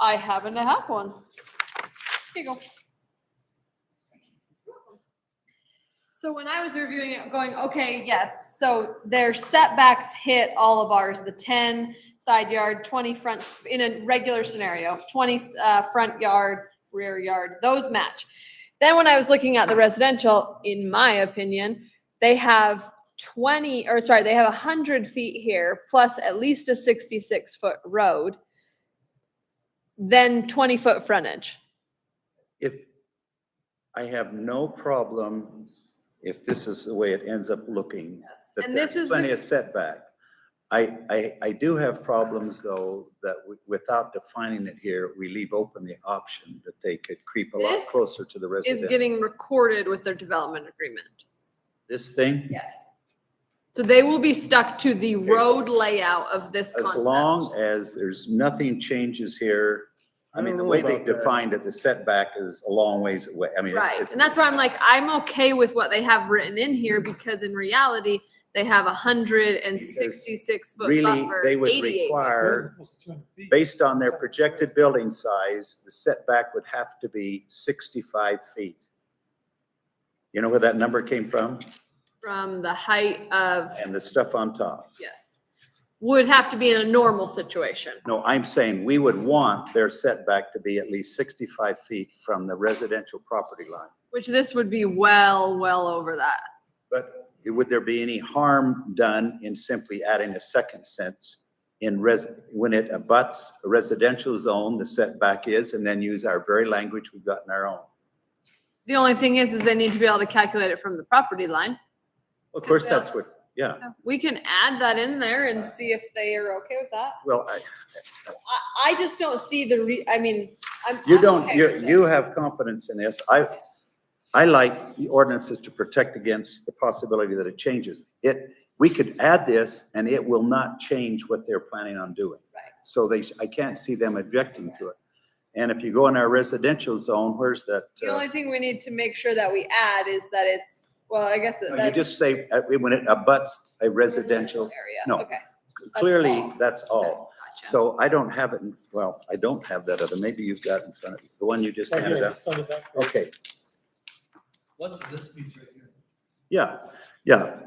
I happen to have one. Here you go. So when I was reviewing it, going, okay, yes, so their setbacks hit all of ours, the ten side yard, twenty front, in a regular scenario, twenty, uh, front yard, rear yard, those match. Then when I was looking at the residential, in my opinion, they have twenty, or sorry, they have a hundred feet here, plus at least a sixty-six foot road, then twenty foot frontage. If, I have no problem if this is the way it ends up looking. that And this there's is the Plenty of setback. I, I, I do have problems though, that w- without defining it here, we leave open the option that they could creep a lot This closer to the is residential. getting recorded with their development agreement. This thing, Yes. So they will be stuck to the Okay. road layout of this as long concept. as there's nothing changes here. I I mean, don't the know way they about that. defined it, the setback is a long ways away. I mean. it- Right, it's- and that's why I'm like, "Ah, I'm okay with what they have written in here because in reality, they have a hundred and sixty-six foot Really, buffer, they would eighty-eight. require Based on their projected building size, the setback would have to be 65 feet. You know where that number came from? From the height of, And the stuff on top. yes, would have to be in a normal situation. No, I'm saying we would want their setback to be at least 65 feet from the residential property line. Which this would be well, well over that. But would there be any harm done in simply adding a second sentence? In res, when it abuts a residential zone, the setback is, and then use our very language we've got in our own. The only thing is, is they need to be able to calculate it from the property line. Of course, that's what, yeah. We can add that in there and see if they are okay with that. Well, I, I, I just don't see the re, I mean, I'm. You I'm don't, okay you, with it. you have confidence in this. I, I like the ordinances to protect against the possibility that it changes. It, we could add this and it will not change what they're planning on doing. Right. So they, sh- I can't see them objecting to it. And if you go in our residential zone, where's that? The uh, only thing we need to make sure that we add is that it's, well, I guess that- no, You that's. just say, uh, when it abuts a residential, Area. no. Okay. clearly, that's all. Gotcha. So I don't have it, in well, I don't have that other, maybe you've got in front of, you, the one you just handed out. Okay, What's this piece right here? yeah, yeah.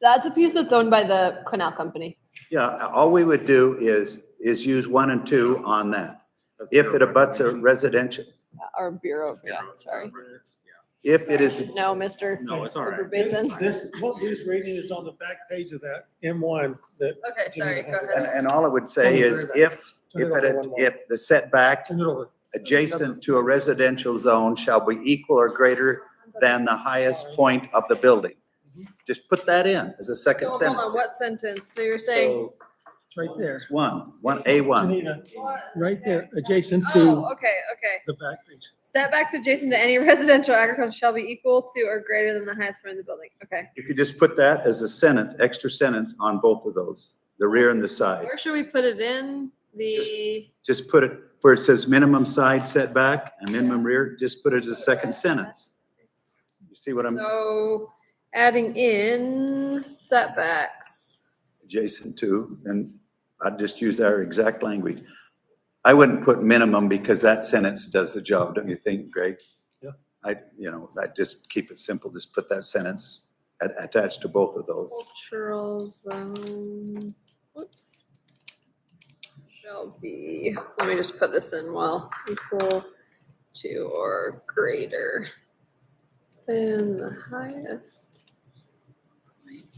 That's a piece that's owned by the canal company. Yeah, all we would do is, is use one and two on that. If it abuts a residential, Our uh, bureau, yeah, sorry. if it is, No, Mr. No, it's all right. Uber Basin. This, what his reading is on the back page of that M one, that, Okay, sorry, go and, ahead. and all it would say is if, if it, if the setback turn it over. adjacent to a residential zone shall be equal or greater than the highest point of the building. Just put that in as a So second Hold on, sentence. what sentence? So you're saying? It's right there. One, one, A one. Janina, What? Right there, adjacent Oh, to okay, okay. the back page. Setbacks adjacent to any residential agriculture shall be equal to or greater than the highest point of the building. Okay. You could just put that as a sentence, extra sentence on both of those, the rear and the side. Where should we put it in? The, just put it where it says minimum side setback and minimum rear, just put it as a second sentence. You see what I'm so adding in setbacks. adjacent to? And I'd just use our exact language. I wouldn't put minimum because that sentence does the job, don't you think, Greg? Yeah. I, you know, I just keep it simple, just put that sentence at- attached to both of those. Cultural zone, whoops. Shall be, let me just put this in while equal to or greater than the highest.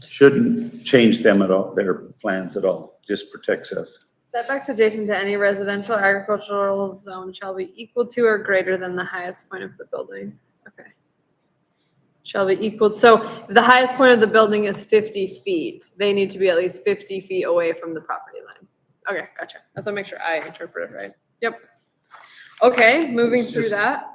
Shouldn't change them at all, their plans at all, just protects us. Setbacks adjacent to any residential or agricultural zone shall be equal to or greater than the highest point of the building. Okay. Shall be equal, so the highest point of the building is fifty feet. They need to be at least fifty feet away from the property line. Okay, gotcha. That's what make sure I interpret it right. Yep. Okay, moving It's through just- that.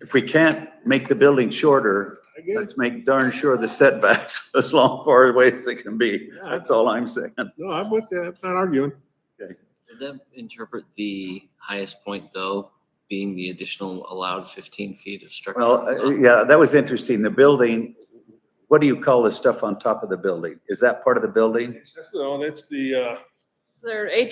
If we can't make the building shorter, I guess, Let's make darn sure the setbacks as long far away as they can be. That's all I'm saying. no, I'm with you, I'm not arguing. Did that interpret the highest point though, being the additional allowed fifteen feet of structure? Well, uh, yeah, that was interesting. The building, what do you call the stuff on top of the building? Is that part of the building? Well, that's the, uh, Is there a